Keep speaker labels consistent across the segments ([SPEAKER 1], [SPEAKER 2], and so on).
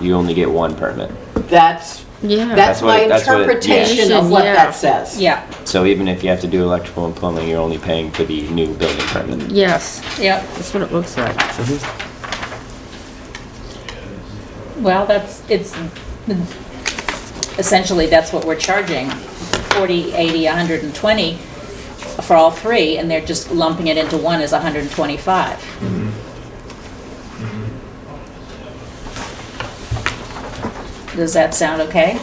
[SPEAKER 1] you only get one permit.
[SPEAKER 2] That's,
[SPEAKER 3] Yeah.
[SPEAKER 2] that's
[SPEAKER 1] That's what
[SPEAKER 2] my
[SPEAKER 1] it- that's what it- yeah.
[SPEAKER 2] interpretation of what
[SPEAKER 3] Yeah.
[SPEAKER 2] that says.
[SPEAKER 4] Yeah,
[SPEAKER 1] So even if you have to do electrical and plumbing, you're only paying for the new building permit.
[SPEAKER 3] Yes,
[SPEAKER 4] yeah.
[SPEAKER 3] that's what it looks like.
[SPEAKER 4] Well, that's, it's, essentially, that's what we're charging, 40, 80, 120 for all three, and they're just lumping it into one as 125. Does that sound okay?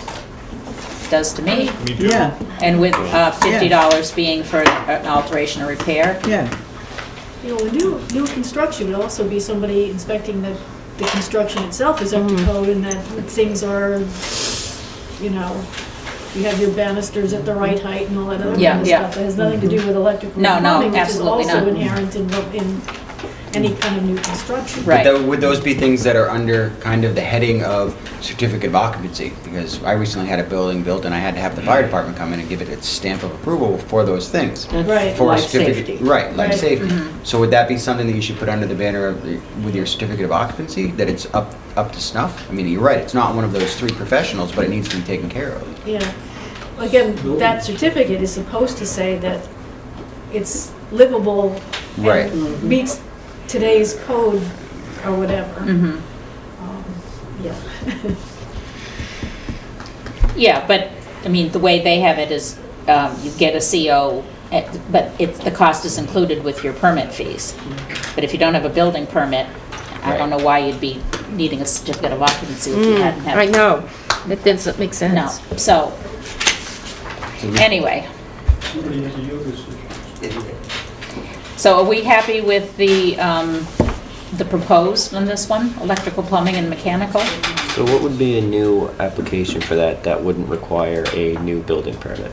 [SPEAKER 4] Does to me.
[SPEAKER 5] We do.
[SPEAKER 2] Yeah,
[SPEAKER 4] And with uh, $50 being for an alteration or repair,
[SPEAKER 2] yeah.
[SPEAKER 6] You know, with new, new construction would also be somebody inspecting that the construction itself is up to
[SPEAKER 4] Mm-hmm.
[SPEAKER 6] code and that things are, you know, you have your banisters at the right height and all that other
[SPEAKER 4] Yeah,
[SPEAKER 6] kind of
[SPEAKER 4] yeah.
[SPEAKER 6] stuff. That has nothing to do with electrical
[SPEAKER 4] No, no,
[SPEAKER 6] plumbing, which is
[SPEAKER 4] absolutely
[SPEAKER 6] also
[SPEAKER 4] not.
[SPEAKER 6] inherent in, what- in any kind of new construction.
[SPEAKER 4] Right.
[SPEAKER 7] But tho- would those be things that are under kind of the heading of certificate of occupancy? Because I recently had a building built and I had to have the fire department come in and give it its stamp of approval for those things.
[SPEAKER 6] Right.
[SPEAKER 7] For
[SPEAKER 2] Mm-hmm.
[SPEAKER 7] a
[SPEAKER 2] Life
[SPEAKER 7] certificate-
[SPEAKER 2] safety. Mm-hmm.
[SPEAKER 7] Right, life
[SPEAKER 6] Right.
[SPEAKER 7] safety. So would that be something that you should put under the banner of, the- with your certificate of occupancy, that it's up, up to snuff? I mean, you're right, it's not one of those three professionals, but it needs to be taken care of.
[SPEAKER 6] Yeah. Again, that certificate is supposed to say that it's livable. and
[SPEAKER 7] Right.
[SPEAKER 6] Meets today's code or whatever.
[SPEAKER 4] Mm-hmm.
[SPEAKER 6] Um, Yeah.
[SPEAKER 4] Yeah, but, I mean, the way they have it is, um, you get a CO, at- but it's, the cost is included with your permit fees. But if you don't have a building permit, I don't know why you'd be needing a certificate of occupancy if
[SPEAKER 2] Mm.
[SPEAKER 4] you hadn't
[SPEAKER 3] Mm, I
[SPEAKER 4] had.
[SPEAKER 3] know, that doesn't make
[SPEAKER 4] No,
[SPEAKER 3] sense.
[SPEAKER 4] so, anyway. So are we happy with the, um, the proposed on this one, electrical, plumbing, and mechanical?
[SPEAKER 1] So what would be a new application for that that wouldn't require a new building permit?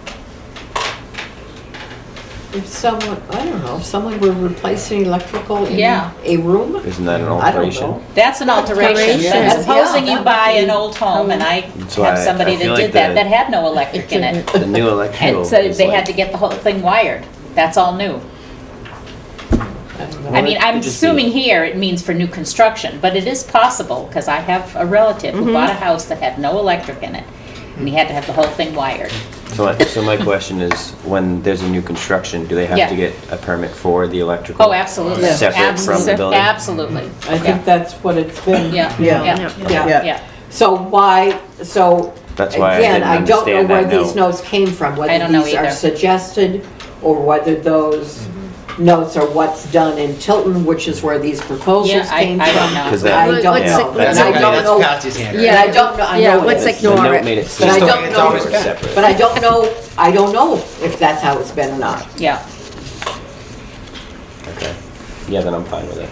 [SPEAKER 2] If someone, I don't know, if someone were replacing electrical in
[SPEAKER 4] Yeah.
[SPEAKER 2] a room?
[SPEAKER 1] Isn't that an
[SPEAKER 2] I don't
[SPEAKER 1] alteration?
[SPEAKER 2] know.
[SPEAKER 4] That's an alteration.
[SPEAKER 3] Alteration.
[SPEAKER 4] But Supposing
[SPEAKER 2] Yeah,
[SPEAKER 4] you
[SPEAKER 2] that
[SPEAKER 4] buy
[SPEAKER 2] would be-
[SPEAKER 4] an old home, and I
[SPEAKER 1] So
[SPEAKER 4] have
[SPEAKER 1] I-
[SPEAKER 4] somebody
[SPEAKER 1] I feel
[SPEAKER 4] that
[SPEAKER 1] like
[SPEAKER 4] did that,
[SPEAKER 1] the-
[SPEAKER 4] that had no electric in it.
[SPEAKER 1] The new electrical
[SPEAKER 4] And so
[SPEAKER 1] is
[SPEAKER 4] they
[SPEAKER 1] like-
[SPEAKER 4] had to get the whole thing wired. That's all new. I mean,
[SPEAKER 1] it
[SPEAKER 4] I'm
[SPEAKER 1] could just
[SPEAKER 4] assuming
[SPEAKER 1] be-
[SPEAKER 4] here it means for new construction, but it is possible, because I have a relative who bought a house that had no electric in it, and he had to have the whole thing wired.
[SPEAKER 1] So my, so my question is, when there's a new construction, do they have to
[SPEAKER 4] Yeah.
[SPEAKER 1] get a permit for the electrical?
[SPEAKER 4] Oh, absolutely.
[SPEAKER 2] Yeah.
[SPEAKER 1] Separate from the
[SPEAKER 4] Absolutely.
[SPEAKER 1] building?
[SPEAKER 4] Absolutely.
[SPEAKER 2] I think that's what it's been.
[SPEAKER 4] Yeah, yeah,
[SPEAKER 2] Yeah.
[SPEAKER 4] Yeah,
[SPEAKER 2] So why, so.
[SPEAKER 1] That's why I didn't
[SPEAKER 2] Again, I don't
[SPEAKER 1] understand
[SPEAKER 2] know
[SPEAKER 1] that
[SPEAKER 2] where these
[SPEAKER 1] note.
[SPEAKER 2] notes came from,
[SPEAKER 4] I
[SPEAKER 2] whether
[SPEAKER 4] don't know
[SPEAKER 2] these are
[SPEAKER 4] either.
[SPEAKER 2] suggested or whether those
[SPEAKER 1] Mm-hmm.
[SPEAKER 2] notes are what's done in Tilton, which is where these
[SPEAKER 4] yeah,
[SPEAKER 2] proposals
[SPEAKER 4] I,
[SPEAKER 2] came from.
[SPEAKER 4] I don't know.
[SPEAKER 1] 'Cause that-
[SPEAKER 2] I don't
[SPEAKER 3] Let's-
[SPEAKER 2] know.
[SPEAKER 3] let's-
[SPEAKER 2] And I don't know,
[SPEAKER 7] Patsy's hand.
[SPEAKER 2] and I don't know, I
[SPEAKER 3] Yeah,
[SPEAKER 2] know it
[SPEAKER 3] let's
[SPEAKER 2] is.
[SPEAKER 1] The
[SPEAKER 3] ignore
[SPEAKER 1] note
[SPEAKER 3] it.
[SPEAKER 1] made it
[SPEAKER 2] But
[SPEAKER 1] seem
[SPEAKER 2] I
[SPEAKER 7] Just
[SPEAKER 2] don't
[SPEAKER 7] it's
[SPEAKER 2] know,
[SPEAKER 7] always been.
[SPEAKER 2] but I don't know, I don't know if that's how it's been or not.
[SPEAKER 4] Yeah.
[SPEAKER 1] Okay. Yeah, then I'm fine with it.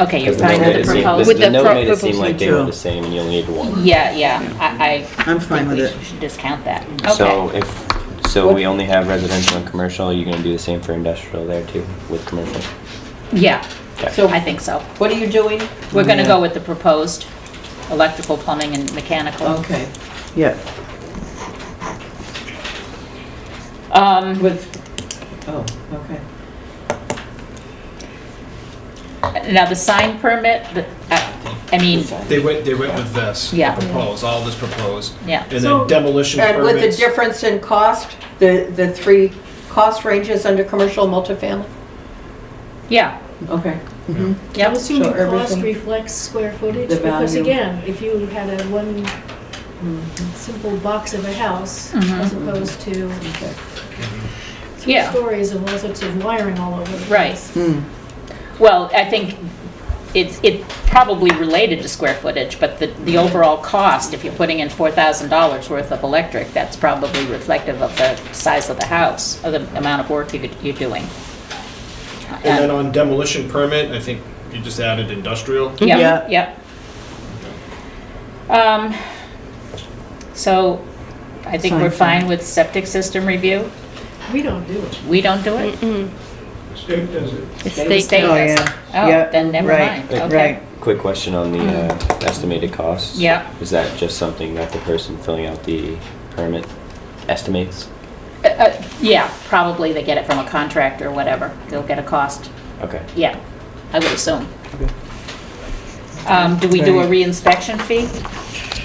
[SPEAKER 4] Okay, you're
[SPEAKER 1] 'Cause the note
[SPEAKER 4] fine with
[SPEAKER 1] made it
[SPEAKER 4] the
[SPEAKER 1] seem-
[SPEAKER 4] proposed?
[SPEAKER 3] With
[SPEAKER 1] The
[SPEAKER 3] the
[SPEAKER 1] note
[SPEAKER 3] pro-
[SPEAKER 1] made it seem
[SPEAKER 3] proposal
[SPEAKER 1] like they were
[SPEAKER 3] too.
[SPEAKER 1] the same and you only need one.
[SPEAKER 4] Yeah, yeah, I, I.
[SPEAKER 8] I'm fine
[SPEAKER 4] think
[SPEAKER 8] with
[SPEAKER 4] We
[SPEAKER 8] it.
[SPEAKER 4] should discount that.
[SPEAKER 1] So
[SPEAKER 4] Okay.
[SPEAKER 1] if, so we only have residential and commercial, are you gonna do the same for industrial there too, with commercial?
[SPEAKER 4] Yeah,
[SPEAKER 2] So
[SPEAKER 4] I think so.
[SPEAKER 2] what are you doing?
[SPEAKER 4] We're gonna go with the proposed electrical, plumbing, and mechanical.
[SPEAKER 2] Okay,
[SPEAKER 8] Yeah,
[SPEAKER 4] Um,
[SPEAKER 2] with, oh, okay.
[SPEAKER 4] now the sign permit, the- I, I mean,
[SPEAKER 5] They went, they went with this.
[SPEAKER 4] Yeah.
[SPEAKER 5] Proposed, all this proposed.
[SPEAKER 4] Yeah.
[SPEAKER 5] And
[SPEAKER 6] So-
[SPEAKER 5] then demolition
[SPEAKER 2] And with the
[SPEAKER 5] permits.
[SPEAKER 2] difference in cost, the, the three cost ranges under commercial multifamily?
[SPEAKER 4] yeah,
[SPEAKER 2] Okay.
[SPEAKER 6] I
[SPEAKER 4] yeah,
[SPEAKER 6] would assume
[SPEAKER 2] So
[SPEAKER 6] your cost
[SPEAKER 2] everything-
[SPEAKER 6] reflects square footage,
[SPEAKER 2] The
[SPEAKER 6] because
[SPEAKER 2] value. Mm-hmm.
[SPEAKER 6] again, if you had a one simple box of a house, as opposed to three
[SPEAKER 4] Mm-hmm. Yeah.
[SPEAKER 6] stories of all sorts of wiring all over the
[SPEAKER 4] Right.
[SPEAKER 6] place.
[SPEAKER 4] well, I think it's, it probably related to square footage, but the, the overall cost, if you're putting in four thousand dollars worth of electric, that's probably reflective of the size of the house, of the amount of work you could- you're doing. Um,
[SPEAKER 5] And then on demolition permit, I think you just added industrial.
[SPEAKER 4] Yep, yep. Um, so I think we're fine with septic system review.
[SPEAKER 6] We don't do it.
[SPEAKER 4] We don't do it?
[SPEAKER 3] It's
[SPEAKER 4] The
[SPEAKER 3] state-
[SPEAKER 4] state
[SPEAKER 8] Oh,
[SPEAKER 4] does it.
[SPEAKER 8] yeah.
[SPEAKER 4] Oh,
[SPEAKER 8] Yep,
[SPEAKER 4] then never
[SPEAKER 8] right,
[SPEAKER 4] mind, okay.
[SPEAKER 8] right.
[SPEAKER 1] Quick question on the uh, estimated costs.
[SPEAKER 4] Mm-hmm. Yeah.
[SPEAKER 1] Is that just something that the person filling out the permit estimates?
[SPEAKER 4] Uh, uh, Yeah, probably they get it from a contractor or whatever. They'll get a cost.
[SPEAKER 1] Okay.
[SPEAKER 4] Yeah, I would assume. Um, do we do a reinspection fee?